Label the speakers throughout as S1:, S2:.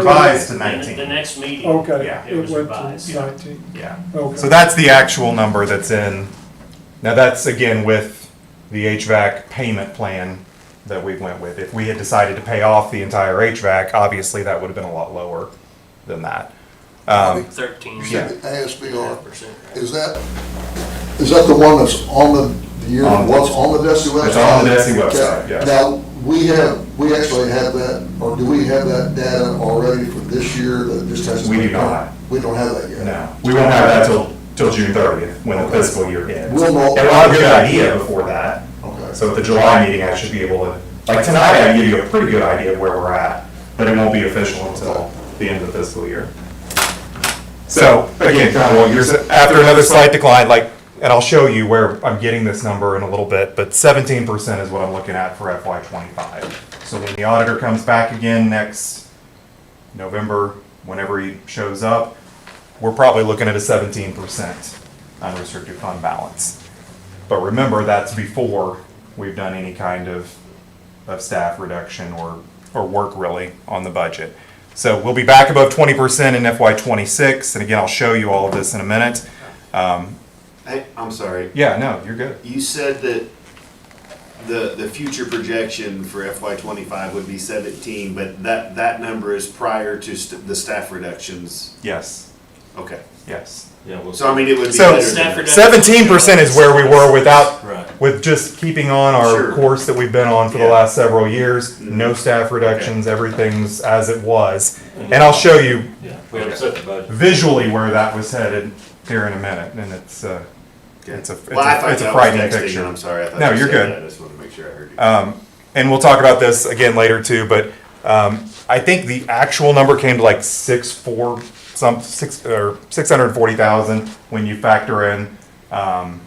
S1: revised to
S2: The
S1: 19.
S2: next meeting.
S3: Okay,
S1: Yeah.
S2: It
S3: it
S2: was
S3: went
S2: revised.
S3: to nineteen,
S1: Yeah.
S3: okay.
S1: So that's the actual number that's in. Now that's again with the HVAC payment plan that we went with. If we had decided to pay off the entire HVAC, obviously that would have been a lot lower than that. Um,
S2: Thirteen.
S4: You
S1: Yeah.
S4: said the ASBR,
S2: Percent.
S4: is that, is that the one that's on the, the year,
S1: On the-
S4: what's on the DESI website?
S1: It's on the DESI
S4: Okay.
S1: website, yes.
S4: Now, we have, we actually have that, or do we have that data already for this year that just hasn't?
S1: We
S4: been
S1: do not.
S4: done? We don't have that yet?
S1: no, we won't have that till, till June 30th when the fiscal year ends.
S4: We'll know-
S1: And we'll have a good idea before that.
S4: Okay.
S1: So at the July meeting, I should be able to, like tonight, I can give you a pretty good idea of where we're at, but it won't be official until the end of the fiscal year. So again, kind of what you're sa- after another slight decline, like, and I'll show you where I'm getting this number in a little bit, but seventeen percent is what I'm looking at for FY twenty-five. So when the auditor comes back again next November, whenever he shows up, we're probably looking at a seventeen percent unrestricted fund balance. But remember, that's before we've done any kind of, of staff reduction or, or work really on the budget. So we'll be back above twenty percent in FY twenty-six, and again, I'll show you all of this in a minute. Um,
S5: Hey, I'm sorry.
S1: yeah, no, you're good.
S5: You said that the, the future projection for FY twenty-five would be seventeen, but that, that number is prior to st- the staff reductions.
S1: Yes,
S5: Okay.
S1: yes.
S6: Yeah, well,
S5: So I mean, it would be
S1: So-
S5: better
S2: Staff
S5: than.
S2: reduction.
S1: Seventeen percent is where we were without,
S6: Right.
S1: with just keeping on our
S5: Sure.
S1: course that we've been on for the
S5: Yeah. Mm-hmm.
S1: last several years. No staff reductions, everything's as it was. And I'll show you
S6: yeah, we have set the budget.
S1: visually where that was headed here in a minute, and it's, uh,
S5: Okay.
S1: it's a, it's
S5: Well, I thought
S1: a, it's a
S5: that was
S1: frightening
S5: texting, and
S1: picture.
S5: I'm sorry. I thought
S1: No,
S5: you
S1: you're
S5: said
S1: good. Um,
S5: that. I just wanted to make sure I heard you.
S1: And we'll talk about this again later too, but, um, I think the actual number came to like six, four, some, six, or six hundred and forty thousand when you factor in, um,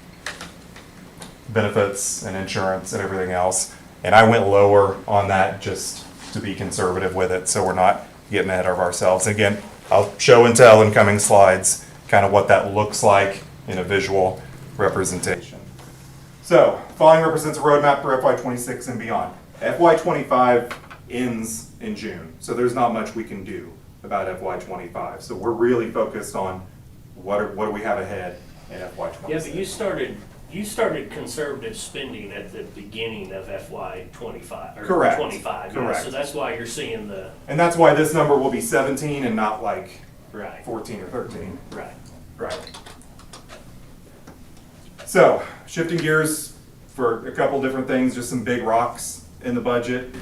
S1: benefits and insurance and everything else. And I went lower on that just to be conservative with it, so we're not getting ahead of ourselves. Again, I'll show and tell in coming slides, kind of what that looks like in a visual representation. So, following represents a roadmap for FY twenty-six and beyond. FY twenty-five ends in June, so there's not much we can do about FY twenty-five. So we're really focused on what are, what do we have ahead in FY
S2: Yeah,
S1: twenty-six.
S2: but you started, you started conservative spending at the beginning of FY twenty-five, or
S1: Correct.
S2: twenty-five. yeah,
S1: Correct.
S2: So that's why you're seeing the,
S1: And that's why this number will be 17 and not like
S2: right,
S1: 14 or 13.
S2: right.
S1: Right. So, shifting gears for a couple different things, just some big rocks in the budget.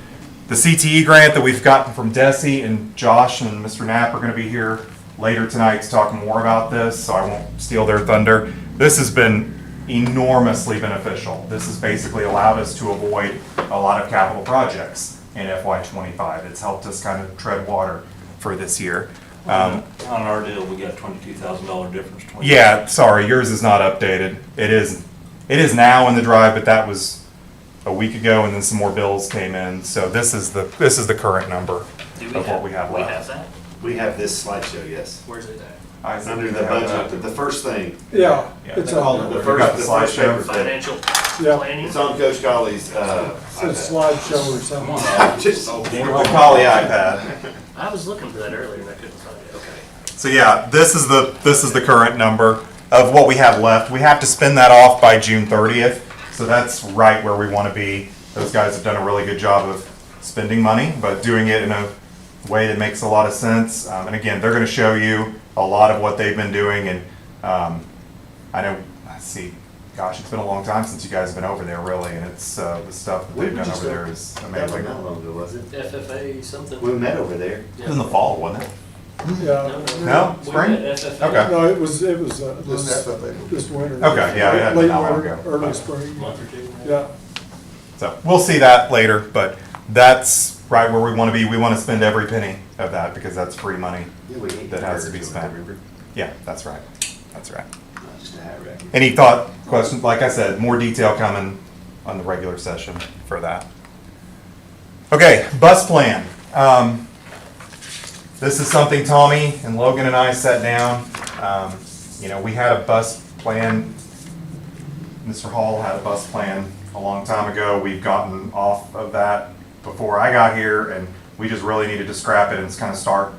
S1: The CTE grant that we've gotten from Desi and Josh and Mr. Knapp are gonna be here later tonight to talk more about this, so I won't steal their thunder. This has been enormously beneficial. This has basically allowed us to avoid a lot of capital projects in FY twenty-five. It's helped us kind of tread water for this year. Um,
S6: On our deal, we got twenty-two thousand dollar difference. 20.
S1: yeah, sorry, yours is not updated. It is, it is now in the drive, but that was a week ago, and then some more bills came in. So this is the, this is the current number
S2: Do
S1: of what we have
S2: We have
S1: left.
S2: that?
S5: We have this slideshow, yes.
S2: Where's it at?
S1: I said
S5: Under
S1: we
S5: the
S1: have
S5: budget,
S1: that.
S5: the first thing,
S3: Yeah,
S1: Yeah.
S3: it's
S1: They call
S3: on,
S1: it-
S3: there.
S5: the
S1: We got the
S5: first, the first
S1: slideshow.
S5: paper thing.
S2: Financial
S3: Yeah.
S2: planning?
S5: It's on Coach Colley's, uh.
S3: it's a
S5: iPad.
S3: slideshow or something.
S5: Just, oh,
S1: The Poly iPad.
S2: I was looking for that earlier and I couldn't find it. Okay.
S1: So yeah, this is the, this is the current number of what we have left. We have to spend that off by June thirtieth, so that's right where we want to be. Those guys have done a really good job of spending money, but doing it in a way that makes a lot of sense. Um, and again, they're gonna show you a lot of what they've been doing and, um, I know, I see, gosh, it's been a long time since you guys have been over there really, and it's, uh, the stuff that
S5: We
S1: they've done
S5: just
S1: over there
S5: don't-
S1: is
S5: That wasn't
S1: amazing.
S5: that long ago, was it?
S2: FFA something?
S5: We met over there.
S1: It was in the fall, wasn't it?
S3: yeah.
S1: No? Spring? Okay.
S3: No, it was, it was, uh,
S4: This
S3: this,
S4: FFA.
S3: this winter.
S1: Okay, yeah, it hadn't been
S3: Late
S1: that long
S3: winter,
S1: ago,
S3: early
S1: but-
S3: spring,
S2: Month or two.
S3: yeah.
S1: So we'll see that later, but that's right where we want to be. We want to spend every penny of that because that's free money.
S5: Yeah, we ate
S1: That has to be
S5: burgers,
S1: spent.
S5: remember?
S1: Yeah, that's right. That's right.
S5: Not Just a hat rack.
S1: Any thought, questions? Like I said, more detail coming on the regular session for that. Okay, bus plan. Um, this is something Tommy and Logan and I sat down. Um, you know, we had a bus plan. Mr. Hall had a bus plan a long time ago. We've gotten off of that before I got here and we We just really needed to scrap it and just kind of start